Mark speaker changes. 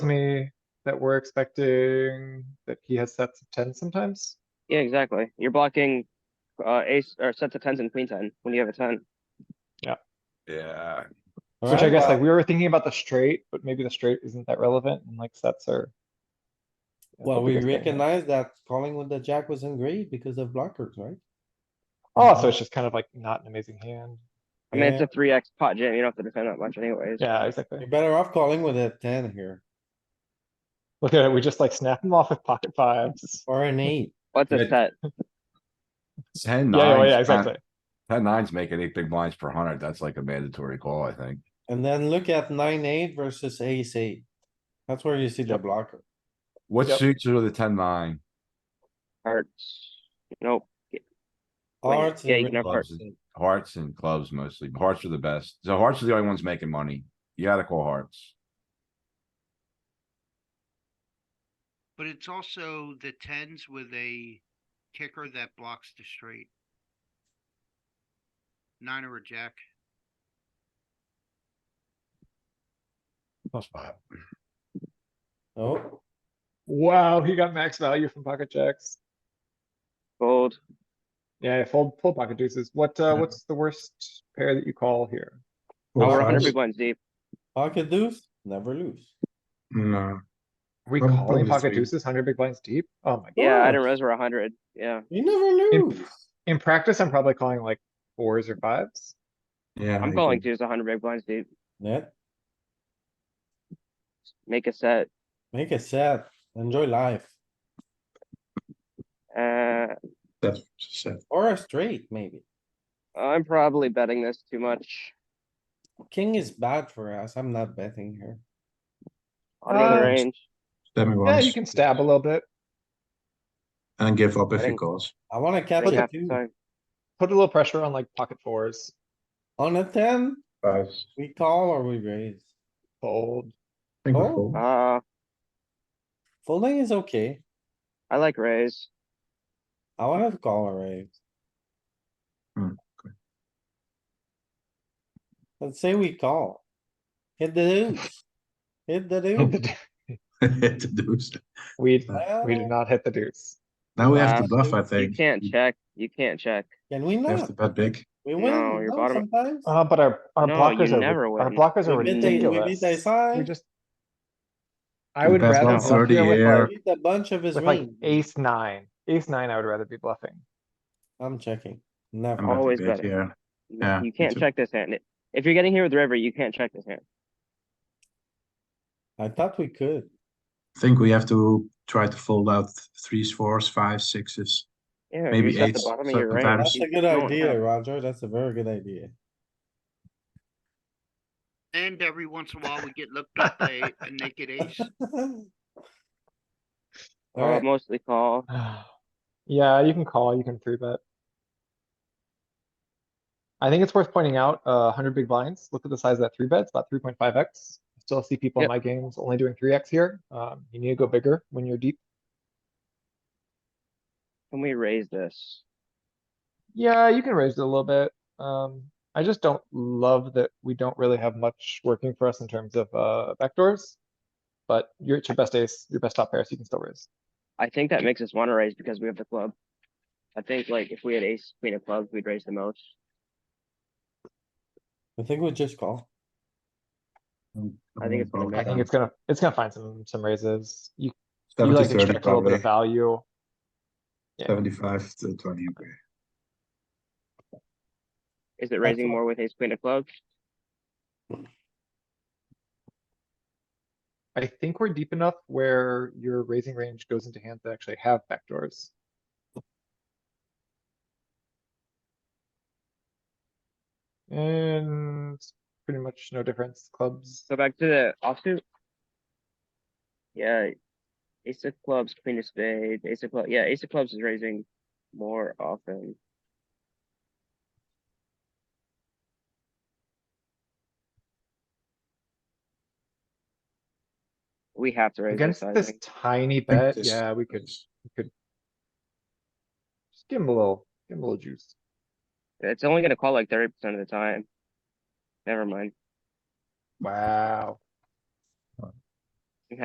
Speaker 1: to me that we're expecting that he has sets of ten sometimes.
Speaker 2: Yeah, exactly. You're blocking uh ace or sets of tens and queen ten when you have a ten.
Speaker 3: Yeah,
Speaker 1: Which I guess like we were thinking about the straight, but maybe the straight isn't that relevant and like sets are. that's
Speaker 4: Well,
Speaker 1: the
Speaker 4: we
Speaker 1: bigger thing.
Speaker 4: recognize that calling with the jack was in grade because of blockers, right?
Speaker 1: Oh, so it's just kind of like not an amazing hand.
Speaker 2: I mean, it's a three X pot jam. You don't have to defend that much anyways.
Speaker 1: Yeah, exactly.
Speaker 4: You're better off calling with a ten here,
Speaker 1: Look at it, we just like snap him off with pocket fives.
Speaker 4: or an eight.
Speaker 2: What's a
Speaker 3: Good.
Speaker 2: set?
Speaker 3: ten
Speaker 1: Yeah, yeah, yeah,
Speaker 3: nines,
Speaker 1: exactly.
Speaker 3: uh, ten nines making eight big blinds per hundred, that's like a mandatory call, I think.
Speaker 4: And then look at nine, eight versus ace eight. That's where you see the blocker.
Speaker 3: What
Speaker 1: Yep.
Speaker 3: suits are the ten nine?
Speaker 2: Hearts. Nope. Wait,
Speaker 4: Hearts
Speaker 2: yeah,
Speaker 4: and
Speaker 2: you can have
Speaker 4: red-
Speaker 2: hearts.
Speaker 3: Hearts and clubs mostly, hearts are the best, so hearts are the only ones making money, you gotta call hearts.
Speaker 5: But it's also the tens with a kicker that blocks the straight. Nine or a jack.
Speaker 3: Plus five.
Speaker 4: Oh,
Speaker 1: Wow, he got max value from pocket jacks.
Speaker 2: Fold.
Speaker 1: Yeah, yeah, full, full pocket deuces. What, uh, what's the worst pair that you call here?
Speaker 2: Oh, we're
Speaker 4: Well,
Speaker 2: hundred
Speaker 4: first-
Speaker 2: big blinds deep.
Speaker 4: pocket deuce, never lose.
Speaker 6: No,
Speaker 1: Are We
Speaker 6: I'm
Speaker 1: calling
Speaker 6: probably
Speaker 1: pocket
Speaker 6: three.
Speaker 1: deuces, hundred big blinds deep? Oh my.
Speaker 2: Yeah, I
Speaker 4: course.
Speaker 2: didn't realize we're hundred. Yeah.
Speaker 4: You never
Speaker 1: In-
Speaker 4: lose.
Speaker 1: In practice, I'm probably calling like fours or fives.
Speaker 6: yeah.
Speaker 2: I'm
Speaker 6: I
Speaker 2: calling
Speaker 6: agree.
Speaker 2: twos hundred big blinds deep.
Speaker 4: Net,
Speaker 2: Make a set.
Speaker 4: make a set, enjoy life,
Speaker 2: Uh,
Speaker 6: That's what she said.
Speaker 4: or a straight maybe.
Speaker 2: I'm probably betting this too much.
Speaker 4: King is bad for us. I'm not betting here.
Speaker 2: Bottom of the
Speaker 1: Uh,
Speaker 2: range.
Speaker 6: Stab me
Speaker 1: Yeah, you
Speaker 6: once
Speaker 1: can stab a little bit,
Speaker 6: and give up if
Speaker 2: I
Speaker 6: he
Speaker 2: think-
Speaker 6: calls.
Speaker 4: I wanna catch
Speaker 2: Like
Speaker 4: a
Speaker 2: half
Speaker 4: two.
Speaker 2: the time.
Speaker 1: put a little pressure on like pocket fours,
Speaker 4: On a ten,
Speaker 6: Five.
Speaker 4: we call or we raise.
Speaker 1: fold.
Speaker 6: I think we
Speaker 4: Oh.
Speaker 6: call.
Speaker 2: Uh,
Speaker 4: Folding is okay.
Speaker 2: I like raise.
Speaker 4: I wanna call a raise.
Speaker 1: Mm,
Speaker 6: Hmm,
Speaker 4: Let's say we call. Hit the deuce. Hit the deuce.
Speaker 6: Hit the deuce.
Speaker 1: We,
Speaker 4: Uh,
Speaker 1: we did not hit the deuce.
Speaker 6: Now we have to
Speaker 2: Uh,
Speaker 6: bluff, I
Speaker 2: You
Speaker 6: think.
Speaker 2: can't
Speaker 6: We
Speaker 2: check. You can't check.
Speaker 4: Can we
Speaker 6: Have
Speaker 4: not?
Speaker 6: to bet big.
Speaker 4: We
Speaker 2: No,
Speaker 4: win
Speaker 2: you're
Speaker 4: no,
Speaker 2: bottom-
Speaker 4: sometimes.
Speaker 1: Uh, but our, our
Speaker 2: No,
Speaker 1: blockers
Speaker 2: you
Speaker 1: are,
Speaker 2: never
Speaker 1: ri- our
Speaker 2: win.
Speaker 1: blockers are
Speaker 4: We beat the, we beat
Speaker 1: ridiculous.
Speaker 4: the
Speaker 1: We
Speaker 4: side.
Speaker 1: just. I would
Speaker 6: The best
Speaker 1: rather
Speaker 6: one's
Speaker 1: bluff here
Speaker 6: 30
Speaker 1: with
Speaker 4: We
Speaker 6: here.
Speaker 1: like,
Speaker 4: beat a bunch of his
Speaker 1: with like
Speaker 4: range.
Speaker 1: ace nine, ace nine, I would rather be bluffing.
Speaker 4: I'm checking.
Speaker 6: I'm
Speaker 4: Never.
Speaker 6: at the
Speaker 2: Always
Speaker 6: big
Speaker 2: better.
Speaker 6: here.
Speaker 2: You-
Speaker 6: Yeah,
Speaker 2: You
Speaker 6: me
Speaker 2: can't
Speaker 6: too.
Speaker 2: check this hand. If you're getting here with river, you can't check this hand.
Speaker 4: I thought we could.
Speaker 6: I think we have to try to fold out threes, fours, fives, sixes.
Speaker 2: Yeah,
Speaker 6: Maybe
Speaker 2: you're at the
Speaker 6: eights
Speaker 2: bottom of your range.
Speaker 6: sometimes.
Speaker 4: That's
Speaker 2: You
Speaker 4: a good
Speaker 2: don't
Speaker 4: idea,
Speaker 2: have-
Speaker 4: Roger. That's a very good idea.
Speaker 5: And every once in a while, we get looked up by a naked ace.
Speaker 2: Call,
Speaker 4: Alright,
Speaker 2: Mostly call.
Speaker 1: Yeah, you can call, you can three bet. I think it's worth pointing out, uh, hundred big blinds, look at the size of that three bet, it's about three point five X. Still see people in
Speaker 2: Yep.
Speaker 1: my games only doing three X here, um, you need to go bigger when you're deep.
Speaker 2: Can we raise this?
Speaker 1: Yeah, you can raise it a little bit, um, I just don't love that we don't really have much working for us in terms of, uh, backdoors. But you're at your best ace, your best top pair, so you can still raise.
Speaker 2: I think that makes us wanna raise because we have the club. I think like if we had ace, queen of clubs, we'd raise the most.
Speaker 4: I think we just call.
Speaker 2: I think it's gonna
Speaker 1: I think
Speaker 2: Yeah.
Speaker 1: it's gonna, it's gonna find some, some raises, you, you
Speaker 6: Seventy,
Speaker 1: like
Speaker 6: thirty,
Speaker 1: extract a little bit of
Speaker 6: probably.
Speaker 1: value. yeah.
Speaker 6: Seventy-five to twenty, okay.
Speaker 2: Is it raising
Speaker 4: all.
Speaker 2: more with ace, queen of clubs?
Speaker 1: I think we're deep enough where your raising range goes into hands that actually have backdoors. And pretty much no difference, clubs.
Speaker 2: So back to the offsuit. Yeah. Ace of clubs, queen of spades, ace of clubs. Yeah, ace of clubs is raising more often. We have to raise this
Speaker 1: Against
Speaker 2: size.
Speaker 1: this tiny
Speaker 6: I think
Speaker 1: bet,
Speaker 6: this-
Speaker 1: yeah, we could just give him a little, give him a little juice.
Speaker 2: It's only gonna call like thirty percent of the time. Never mind.
Speaker 1: Wow,